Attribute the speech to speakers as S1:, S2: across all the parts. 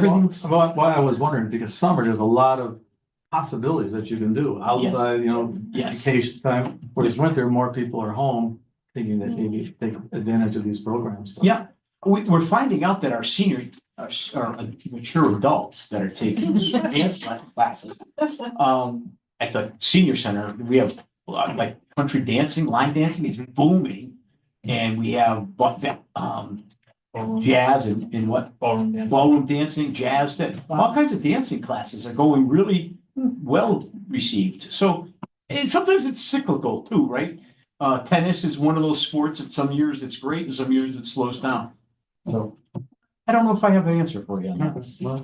S1: Everything's why why I was wondering, because summer, there's a lot of possibilities that you can do outside, you know,
S2: Yes,
S1: vacation time. Whereas winter, more people are home thinking that they need to take advantage of these programs.
S2: Mm. Yeah. we, we're finding out that our seniors are, s- are mature adults that are taking dance classes. Um, at the senior center, we have a lot of, like country dancing, line dancing is booming. And we have, but, um, jazz and, and what,
S3: Ballroom dance.
S2: ballroom dancing, jazz, that, all kinds of dancing classes are going really well received. So, and sometimes it's cyclical too, right? Uh, tennis is one of those sports that some years it's great and some years it slows down. So I don't know if I have an answer for you. on that.
S1: Well,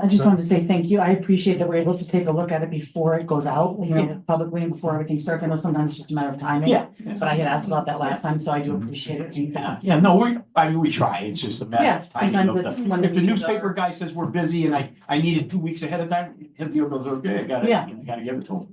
S4: I just wanted to say thank you. I appreciate that we're able to take a look at it before it goes out, you know, publicly and before everything starts. I know sometimes it's just a matter of timing.
S2: Yeah. Mhm.
S4: But I had asked about that last time, so I do appreciate it. Thank you.
S2: Yeah, yeah, no, we, I mean, we try. It's just a matter
S4: Yeah,
S2: of timing. of
S4: sometimes it's
S2: the-
S4: when
S2: If the
S4: we-
S2: newspaper guy says we're busy and I, I need it two weeks ahead of time, him deal goes, okay, I got it.
S4: Yeah.
S2: I gotta give it to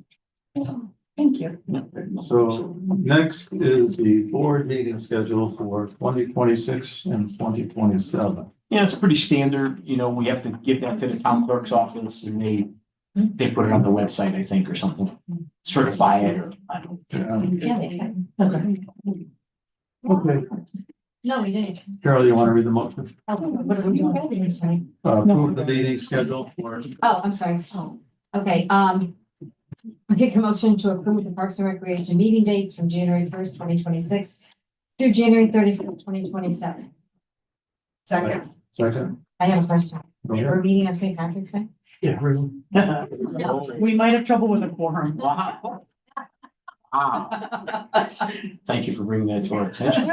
S4: Thank you.
S2: him.
S1: So next is the board meeting schedule for twenty twenty-six and twenty twenty-seven.
S2: Yeah, it's pretty standard, you know, we have to give that to the town clerk's office and they, they put it on the website, I think, or something. Certify it or, I don't.
S3: Yeah, they can.
S4: Okay.
S1: Okay,
S3: No, we didn't.
S1: Carol, you want to read the motion?
S4: What are we doing?
S1: Uh, Approve the meeting schedule for
S3: Oh, I'm sorry. Oh, okay, um. I take a motion to approve the Parks and Recreation meeting dates from January first, twenty twenty-six through January thirty-first, twenty twenty-seven.
S1: Second. second.
S3: I have a question.
S1: Go ahead.
S3: We're meeting on St. Patrick's Day?
S1: Yeah. really.
S4: We might have trouble with a quorum.
S2: Wow. Wow. Thank you for bringing that to our attention.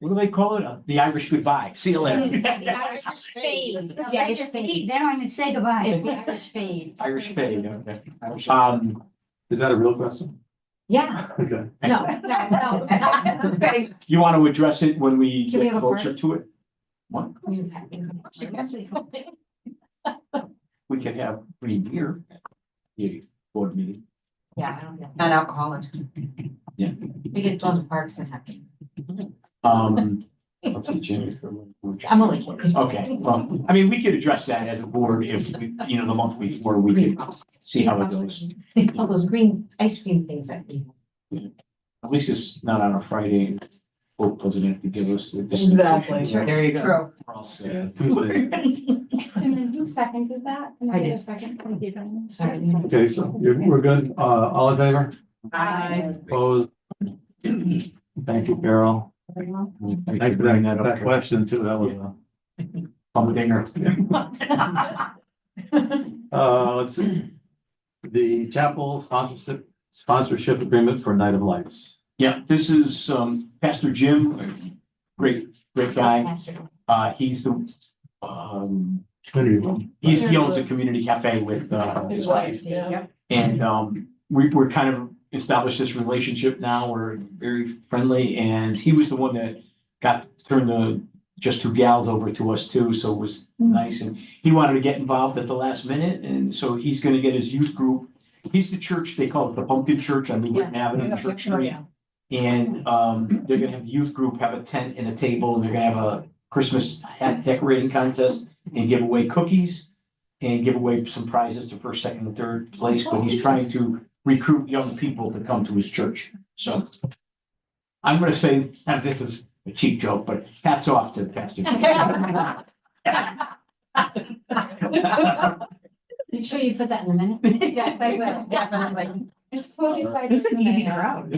S2: What do they call it? Uh, The Irish goodbye. See you later.
S3: The Irish fade.
S5: No,
S3: The
S5: They
S3: Irish
S5: just
S3: fade.
S5: eat, they don't even say goodbye,
S3: It's
S5: it's
S3: the
S5: the
S3: Irish
S5: Irish fade.
S2: Irish fade, okay. Irish- Um,
S1: Is that a real question?
S3: Yeah,
S1: Okay.
S3: no, no, no. it's not. Okay.
S2: you want to address it when we
S3: Can we
S2: get
S3: have a
S2: closer to it? What?
S3: Well,
S2: We could have three year. Yeah, board meeting.
S3: Yeah, I don't know.
S5: Not alcoholic.
S3: We could go to parks and have.
S2: Um, let's see, January. February,
S3: I'm only kidding.
S2: Okay, well, I mean, we could address that as a board if, we you know, the month before, we could see how it goes.
S3: All those green ice cream things that we.
S2: At least it's not on a Friday. Hope doesn't have to give us. the
S4: Exactly.
S2: distinction.
S4: There you go.
S2: We're all set.
S1: Yeah, Tuesday.
S5: And then who seconded that? Can
S4: I
S5: get a
S4: did.
S5: Second.
S3: Sorry.
S1: Okay, so you're- we're good. Uh, all in favor?
S4: Bye.
S1: Opposed? Thank you, Carol. Thank you for that, that question too. That was a
S2: Bum dinger.
S1: Uh, let's see. The chapel sponsorship, sponsorship agreement for Night of Lights.
S2: Yeah, this is, um, Pastor Jim, great, great guy. Uh, he's the, um,
S1: Community.
S2: he's, he owns a community cafe with, uh, his wife.
S3: yeah.
S2: And um, we, we're kind of established this relationship now, we're very friendly, and he was the one that got, turned the, just two gals over to us too, so it was nice, and he wanted to get involved at the last minute, and so he's gonna get his youth group. He's the church, they call it the Pumpkin Church on New Britain Avenue, Church Street. And um, they're gonna have the youth group have a tent and a table, and they're gonna have a Christmas hat decorating contest and give away cookies. And give away some prizes to first, second, and third place, but he's trying to recruit young people to come to his church, so. I'm gonna say, and this is a cheap joke, but hats off to Pastor.
S3: Make sure you put that in the minute. Yes, I will, definitely. It's quoted by.
S4: This is easy out.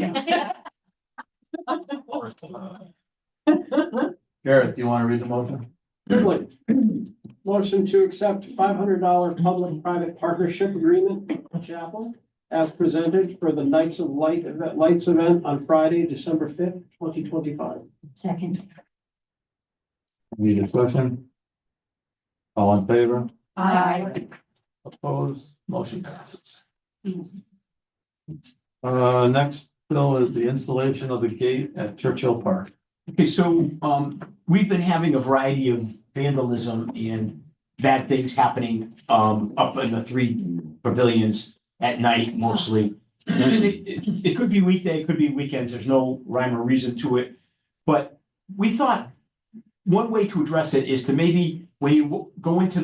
S1: Garrett, do you want to read the motion?
S6: Goodwin. Motion to accept five hundred dollar public-private partnership agreement with Chapel as presented for the Knights of Light event, Lights event on Friday, December fifth, twenty twenty-five.
S3: Second.
S1: Any discussion? All in favor?
S3: Aye.
S1: Opposed, motion passes. Uh, next bill is the installation of the gate at Churchill Park.
S2: Okay, so, um, we've been having a variety of vandalism and bad things happening, um, up in the three pavilions at night mostly. And It it- it could be weekday, it could be weekends, there's no rhyme or reason to it. But we thought one way to address it is to maybe when you w- go into